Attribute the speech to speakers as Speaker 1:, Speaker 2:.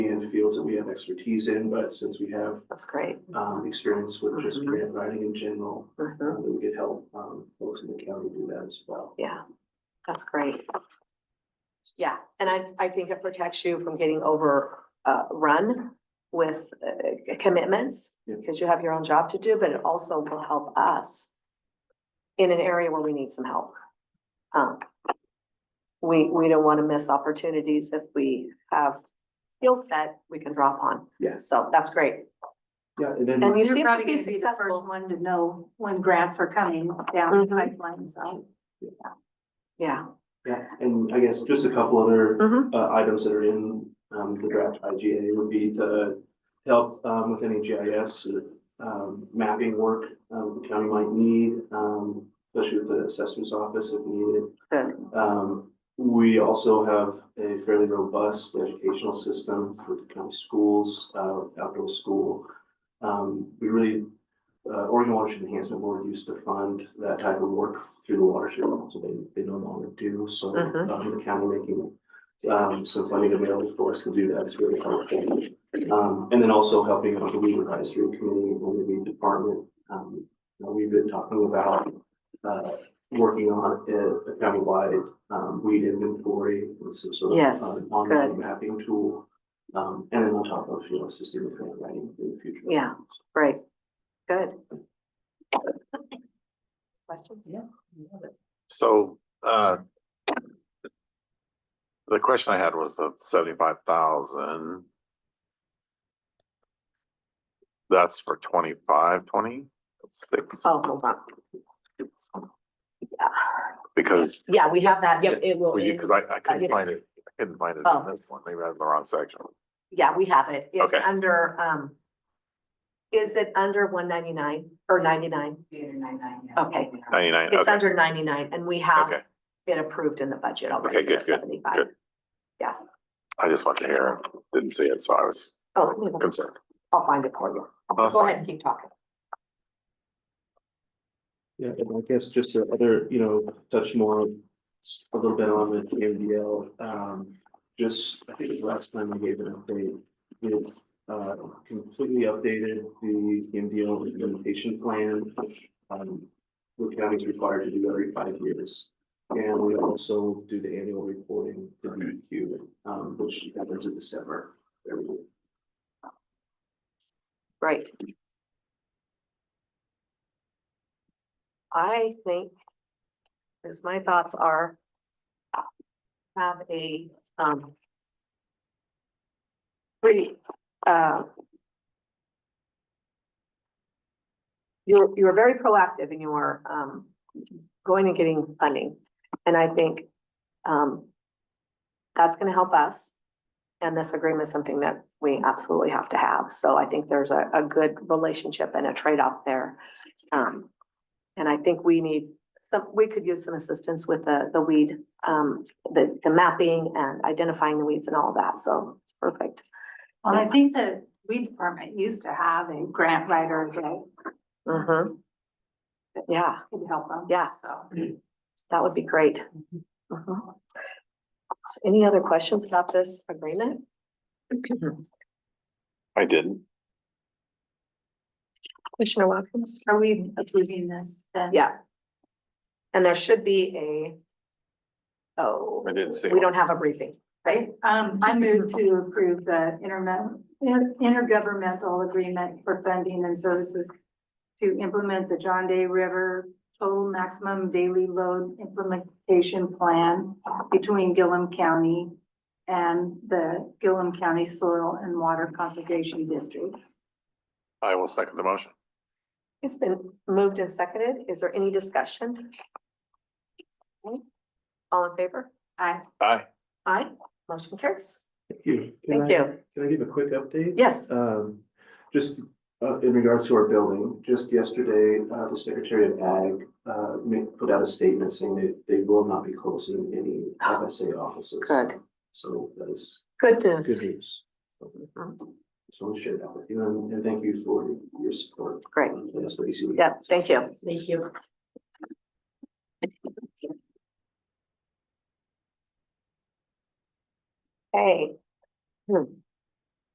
Speaker 1: in fields that we have expertise in, but since we have
Speaker 2: That's great.
Speaker 1: um experience with just
Speaker 2: Mhm.
Speaker 1: grant writing in general,
Speaker 2: Mhm.
Speaker 1: um, we could help um folks in the county do that as well.
Speaker 2: Yeah, that's great. Yeah, and I, I think it protects you from getting over, uh, run with uh, commitments
Speaker 1: Yeah.
Speaker 2: because you have your own job to do, but it also will help us in an area where we need some help. Um, we, we don't want to miss opportunities if we have skill set we can drop on.
Speaker 1: Yeah.
Speaker 2: So that's great.
Speaker 1: Yeah, and then
Speaker 2: And you
Speaker 3: You're
Speaker 2: seem to
Speaker 3: probably
Speaker 2: be
Speaker 3: gonna be the first
Speaker 2: successful.
Speaker 3: one to know when grants are coming down the
Speaker 2: Mhm.
Speaker 3: pipeline, so.
Speaker 2: Yeah.
Speaker 1: yeah, and I guess just a couple other
Speaker 2: Mm-hmm.
Speaker 1: uh, items that are in, um, the draft IGA would be to help, um, with any GIS, um, mapping work, um, the county might need, um, especially with the assessments office if needed.
Speaker 2: Good.
Speaker 1: Um, we also have a fairly robust educational system for the county schools, uh, outdoor school. Um, we really, uh, Oregon Watershed Enhancement Board used to fund that type of work through the watershed, so they, they no longer do, so,
Speaker 2: Mhm.
Speaker 1: um, the county making um, some funding available for us to do that is really helpful. Um, and then also helping out the weed advisory committee and the weed department. Um, you know, we've been talking about, uh, working on a a countywide um weed inventory with some sort of.
Speaker 2: Yes,
Speaker 1: um, Online mapping tool, um, and then on top of, you know, assisting with grant writing in the future.
Speaker 2: Yeah. Great. Good. Questions? Yeah.
Speaker 4: So, uh. The question I had was the seventy-five thousand. That's for twenty-five, twenty-six,
Speaker 2: Oh, hold on. Yeah,
Speaker 4: because,
Speaker 2: Yeah, we have that, yeah, it will,
Speaker 4: because I,
Speaker 2: I
Speaker 4: I
Speaker 2: get
Speaker 4: couldn't
Speaker 2: it.
Speaker 4: find it, I couldn't find it
Speaker 2: Oh.
Speaker 4: in this one, maybe I was in the wrong section.
Speaker 2: yeah, we have it, it's
Speaker 4: Okay.
Speaker 2: under, um. Is it under one ninety-nine or ninety-nine? Okay,
Speaker 4: Ninety-nine,
Speaker 2: it's
Speaker 4: okay,
Speaker 2: under ninety-nine and we have
Speaker 4: okay,
Speaker 2: it approved in the budget already
Speaker 4: Okay,
Speaker 2: for
Speaker 4: good, good,
Speaker 2: seventy-five.
Speaker 4: good. I just wanted to hear, it. didn't see it, so I was
Speaker 2: Oh, let me look.
Speaker 4: concerned.
Speaker 2: I'll find it for you,
Speaker 4: That's
Speaker 2: go
Speaker 4: fine.
Speaker 2: ahead and keep talking.
Speaker 1: Yeah, and I guess just the other, you know, touch more s- a little bit on the MDL, um, just, I think the last time I gave an update. It uh completely updated the MDL implementation plan, which um the county's required to do every five years. And we also do the annual reporting to DEQ, um, which happens in December every year.
Speaker 2: Right. I think, as my thoughts are, uh, have a, um,
Speaker 3: We, uh,
Speaker 2: you're, you're very proactive in your, um, going and getting funding. And I think, um, that's gonna help us. And this agreement is something that we absolutely have to have. So I think there's a, a good relationship and a trade-off there. Um, and I think we need some, we could use some assistance with the, the weed, um, the, the mapping and identifying the weeds and all of that. So it's perfect.
Speaker 3: well, I think the weed department used to have a grant writer that
Speaker 2: Mm-hmm. Yeah.
Speaker 3: could help them.
Speaker 2: Yeah.
Speaker 3: So.
Speaker 2: That would be great. Mhm. So any other questions about this agreement?
Speaker 4: I didn't,
Speaker 2: Commissioner Watkins?
Speaker 3: Are we approving this then?
Speaker 2: Yeah. And there should be a, oh,
Speaker 4: I didn't see
Speaker 2: we
Speaker 4: one.
Speaker 2: don't have a briefing.
Speaker 3: Right, um, I move to approve the intermen- in- intergovernmental agreement for funding and services to implement the John Day River Total Maximum Daily Load Implementation Plan between Gillum County and the Gillum County Soil and Water Conservation District.
Speaker 4: I will second the motion.
Speaker 2: It's been moved and seconded. Is there any discussion? All in favor?
Speaker 3: I,
Speaker 4: Aye,
Speaker 2: Aye. Motion carries.
Speaker 1: Thank you. Can
Speaker 2: Thank
Speaker 1: I-
Speaker 2: you.
Speaker 1: Can I give a quick update?
Speaker 2: Yes.
Speaker 1: Um, just, uh, in regards to our building, just yesterday, uh, the Secretary of Ag, uh, made, put out a statement saying that they will not be closing any FSA offices.
Speaker 2: Good.
Speaker 1: So that is
Speaker 2: Good
Speaker 1: good
Speaker 2: news.
Speaker 1: news. So I'll share that with you and, and thank you for your support.
Speaker 2: Great.
Speaker 1: That's what you see.
Speaker 2: Yeah, thank you. Thank you. Hey. Hmm.